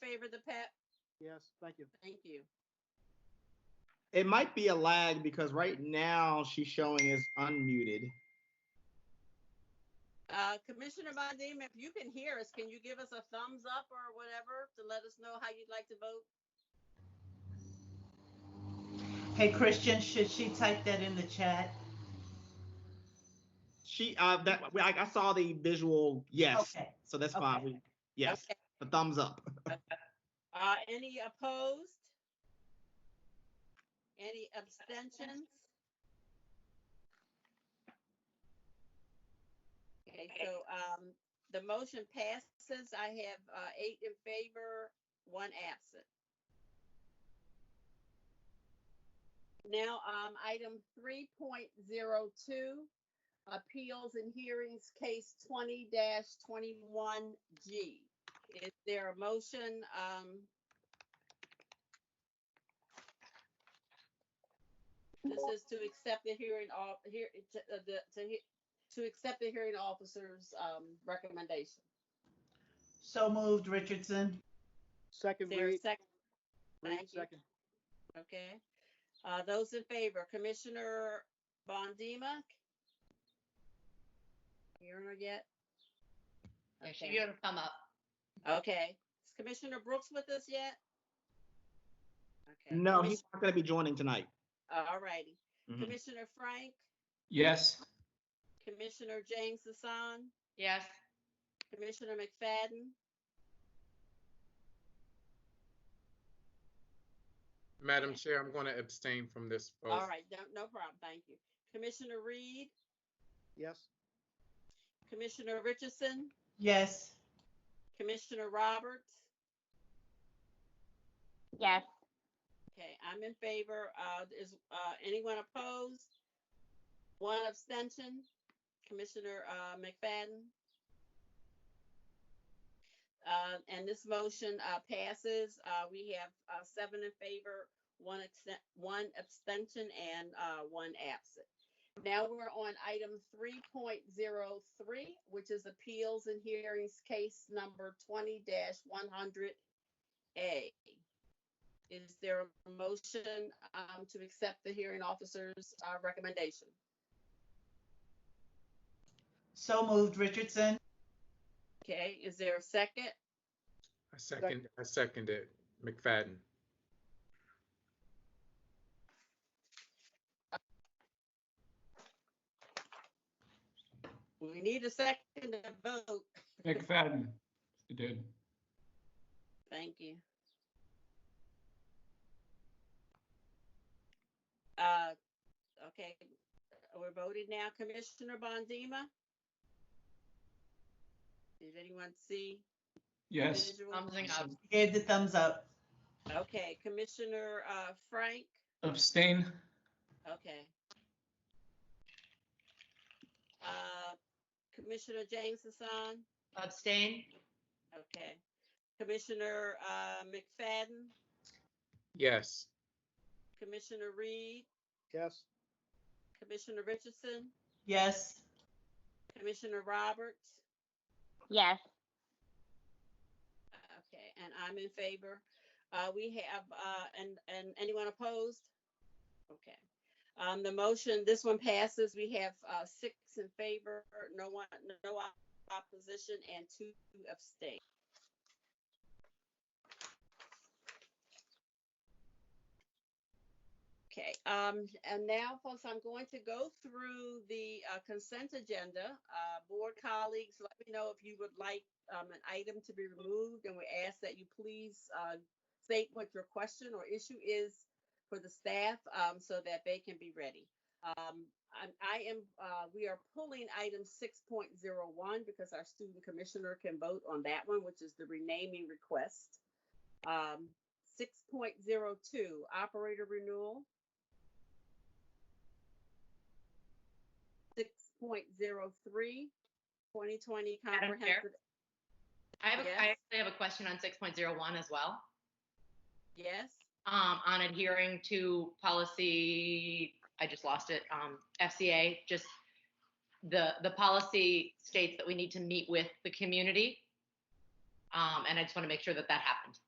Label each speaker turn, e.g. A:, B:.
A: favor of the PEP?
B: Yes, thank you.
A: Thank you.
C: It might be a lag because right now she's showing is unmuted.
A: Uh, Commissioner Bondima, if you can hear us, can you give us a thumbs up or whatever to let us know how you'd like to vote?
D: Hey, Christian, should she type that in the chat?
C: She, uh, that I, I saw the visual. Yes,
D: Okay.
C: so that's fine.
D: okay.
C: We, yes,
A: Okay.
C: the thumbs up.
A: Uh, any opposed? Any abstentions? Okay, so, um, the motion passes. I have, uh, eight in favor, one absent. Now, um, item three point zero two, appeals and hearings, case twenty twenty-one G. Is there a motion? um, This is to accept the hearing, off- here, to- uh, the- to, he- to accept the hearing officer's um, recommendation.
D: So moved, Richardson.
A: Is
B: Second
A: there a
B: read,
A: second?
B: read
A: Thank you.
B: second.
A: Okay. Uh, Those in favor, Commissioner Bondima? Hearing her yet?
E: Yeah, She
A: Okay.
E: gonna come up.
A: Okay. Is Commissioner Brooks with us yet? Okay.
C: No,
A: Commis-
C: he's not going to be joining tonight.
A: All righty.
C: Mhm.
A: Commissioner Frank,
F: Yes.
A: Commissioner James Hassan,
E: Yes,
A: Commissioner McFadden,
G: Madam Chair, I'm going to abstain from this vote.
A: all right, no, no problem, thank you. Commissioner Reed,
B: Yes,
A: Commissioner Richardson,
D: Yes.
A: Commissioner Roberts.
H: Yes.
A: Okay, I'm in favor. Uh, is, uh, anyone opposed? One abstention, Commissioner, uh, McFadden. Uh, and this motion, uh, passes. Uh, we have, uh, seven in favor, one extent, one abstention and, uh, one absent. Now we're on item three point zero three, which is appeals and hearings case number twenty one hundred A. Is there a motion um, to accept the hearing officer's uh, recommendation?
D: So moved, Richardson.
A: Okay, is there a second?
G: I second, I second it. McFadden.
A: We need a second to vote.
F: McFadden. She did.
A: Thank you. Uh, Okay, we're voted now. Commissioner Bondima? Did anyone see?
F: Yes.
A: visual?
E: thumbsing up.
D: She Gave the thumbs up.
A: Okay, Commissioner uh, Frank?
F: Abstain.
A: Okay. Uh, Commissioner James Hassan,
E: Abstain?
A: okay. Commissioner uh, McFadden,
G: Yes.
A: Commissioner Reed,
B: yes,
A: Commissioner Richardson,
D: Yes.
A: Commissioner Roberts.
H: Yes.
A: Okay, and I'm in favor. Uh, we have, uh, and, and anyone opposed? Okay. Um, the motion, this one passes. We have, uh, six in favor, no one, no op- opposition and two abstain. Okay, um, and now folks, I'm going to go through the, uh, consent agenda. Uh, board colleagues, let me know if you would like um, an item to be removed, and we ask that you please uh, state what your question or issue is for the staff um, so that they can be ready. Um, I'm, I am, uh, we are pulling item 6.01 because our student commissioner can vote on that one, which is the renaming request. Um, 6.02, operator renewal. 6.03, 2020
E: Chair?
A: comprehensive
E: I have, a- I
A: Yes.
E: actually have a question on six point zero one as well,
A: Yes,
E: um, on adhering to policy, I just lost it, um, FCA, just the, the policy states that we need to meet with the community. Um, and I just want to make sure that that happened.